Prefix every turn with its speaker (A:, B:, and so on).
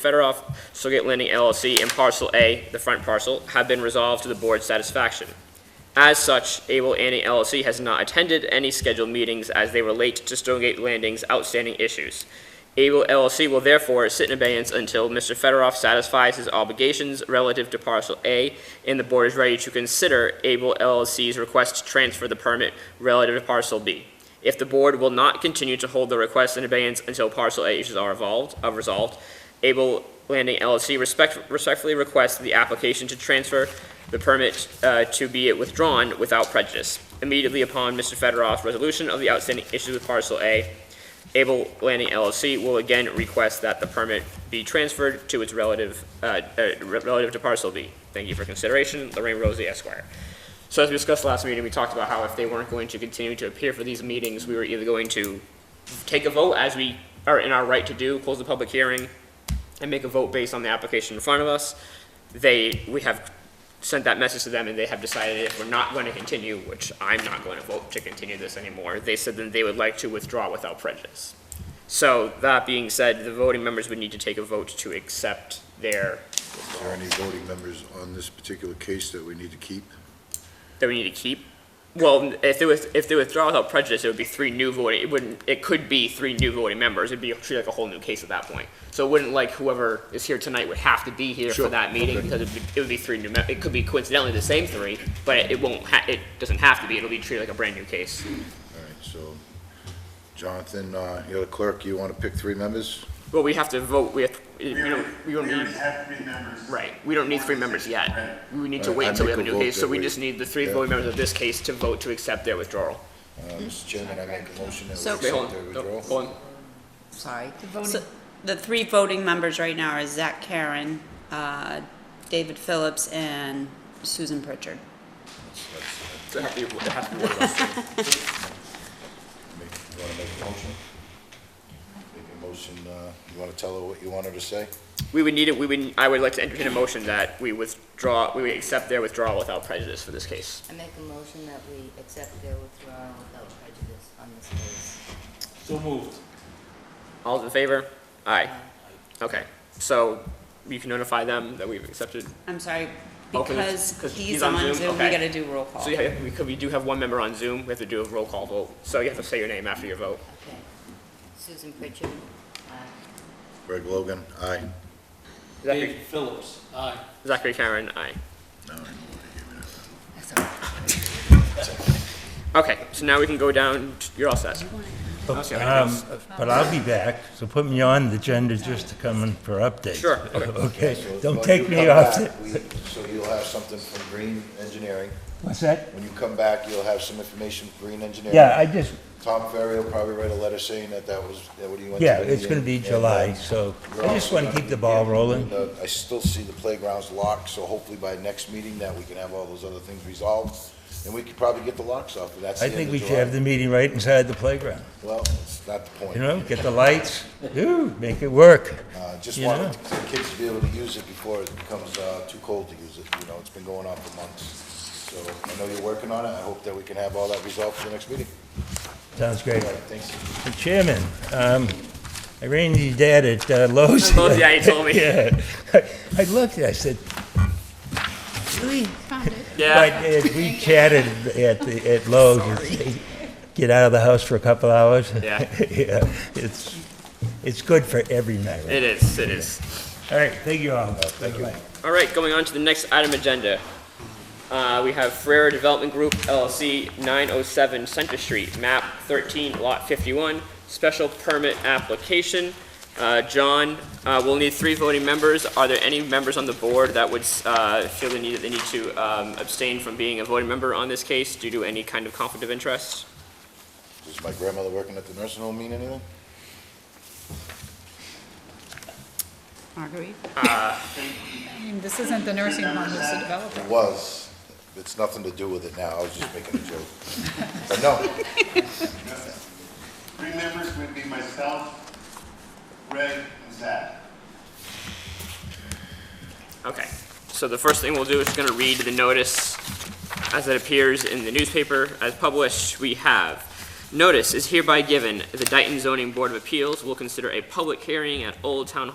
A: Federoff Silgate Landing LLC and Parcel A, the front parcel, have been resolved to the board's satisfaction. As such, Able Annie LLC has not attended any scheduled meetings as they relate to Stonegate Landing's outstanding issues. Able LLC will therefore sit in abeyance until Mr. Federoff satisfies his obligations relative to Parcel A, and the board is ready to consider Able LLC's request to transfer the permit relative to Parcel B. If the board will not continue to hold the request in abeyance until Parcel A issues are evolved, are resolved, Able Landing LLC respect, respectfully requests the application to transfer the permit uh, to be withdrawn without prejudice. Immediately upon Mr. Federoff's resolution of the outstanding issues with parcel A, Able Landing LLC will again request that the permit be transferred to its relative, uh, uh, re- relative to parcel B. Thank you for consideration, Lorraine Rosie Esquire. So as we discussed last meeting, we talked about how if they weren't going to continue to appear for these meetings, we were either going to take a vote as we are in our right to do, close the public hearing, and make a vote based on the application in front of us. They, we have sent that message to them and they have decided if we're not going to continue, which I'm not going to vote to continue this anymore, they said that they would like to withdraw without prejudice. So that being said, the voting members would need to take a vote to accept their,
B: Is there any voting members on this particular case that we need to keep?
A: that we need to keep. Well, if they with, if they withdraw without prejudice, it would be three new voting, it wouldn't, it could be three new voting members, it'd be treated like a whole new case at that point. So it wouldn't like whoever is here tonight would have to be here for
B: Sure,
A: that meeting,
B: okay.
A: because it'd be, it would be three new, mem- it could be coincidentally the same three, but it- it won't ha, it doesn't have to be, it'll be treated like a brand new case.
B: All right, so Jonathan, uh, you're the clerk, you want to pick three members?
A: Well, we have to vote, we have, we don't, we don't
C: We already
A: need,
C: have three members.
A: right, we don't need three members yet. We need to
B: Alright,
A: wait
B: I
A: until we have a
B: make a
A: new
B: vote
A: case, so
B: that
A: we
B: we-
A: just need the three
B: yeah.
A: voting members of this case to vote to accept their withdrawal.
B: Uh, Mr. Chairman, I make a motion that we
D: So-
A: Wait, hold
B: accept their
A: on, no,
B: withdrawal.
A: hold on.
D: Sorry. So The three voting members right now are Zach Karen, uh, David Phillips, and Susan Pritchard.
A: It has to be- it has to be one of us.
B: Make- You want to make a motion? Make a motion, uh, you want to tell her what you want her to say?
A: We would need it, we would, I would like to entertain a motion that we withdraw, we would accept their withdrawal without prejudice for this case.
E: I make a motion that we accept their withdrawal without prejudice on this case.
F: So moved.
A: All in favor? Aye. Okay, so you can notify them that we've accepted.
D: I'm sorry,
A: Oh, 'cause it's-
D: because
A: 'cause
D: he's on Zoom, we
A: okay.
D: gotta do roll call.
A: So you have, we could, we do have one member on Zoom, we have to do a roll call vote, so you have to say your name after your vote.
E: Okay. Susan Pritchard, aye.
B: Greg Logan, aye.
A: Zachary,
F: Phillips, aye.
A: Zachary Karen, aye.
B: No, I know.
A: Okay, so now we can go down, to- you're all set.
G: Um, But I'll be back, so put me on the agenda just to come in for updates.
A: Sure,
G: Okay,
B: So
G: don't
B: when
G: take
B: you
G: me
B: come
G: off.
B: back, we- So you'll have something from Green Engineering.
G: What's that?
B: When you come back, you'll have some information from Green Engineering.
G: Yeah, I just,
B: Tom Ferry will probably write a letter saying that that was, that what he went to.
G: yeah,
B: the
G: it's gonna be
B: meeting, and, uh,
G: July, so I just wanna keep the ball rolling.
B: And, uh, I still see the playgrounds locked, so hopefully by next meeting that we can have all those other things resolved, and we could probably get the locks off, but that's the
G: I
B: end
G: think
B: of
G: we
B: July.
G: should have the meeting right inside the playground,
B: Well, it's not the
G: you
B: point.
G: know, get the lights, ooh, make it work.
B: Uh, just
G: you
B: want
G: know.
B: the kids to be able to use it before it becomes, uh, too cold to use it, you know, it's been going on for months. So I know you're working on it, I hope that we can have all that resolved for the next meeting.
G: Sounds great.
B: All right, thanks.
G: Mr. Chairman, um, I ran into your dad at uh, Lowe's.
A: Lowe's, yeah, you told me.
G: Yeah. I looked, I said, really? But
A: Yeah,
G: uh, we chatted at the, at Lowe's, It's- get out of the house for a couple hours.
A: Yeah.
G: Yeah, it's, it's good for every marriage.
A: it is, it is.
G: All right, thank you all. Thank you.
A: All right, going on to the next item agenda. Uh, we have Ferrer Development Group LLC, 907 Center Street, map 13, lot 51, special permit application. Uh, John, uh, we'll need three voting members. Are there any members on the board that would, uh, feel the need, they need to, um, abstain from being a voting member on this case due to any kind of conflict of interest?
B: Does my grandmother working at the nursing home mean anything?
D: Marguerite?
H: I mean, This isn't the nursing home, it's the developer.
B: It was. It's nothing to do with it now. I was just making a joke. But no,
C: Three members would be myself, Greg, and Zach.
A: Okay, so the first thing we'll do is gonna read the notice as it appears in the newspaper as published. We have, notice is hereby given, the Dayton Zoning Board of Appeals will consider a public hearing at Old Town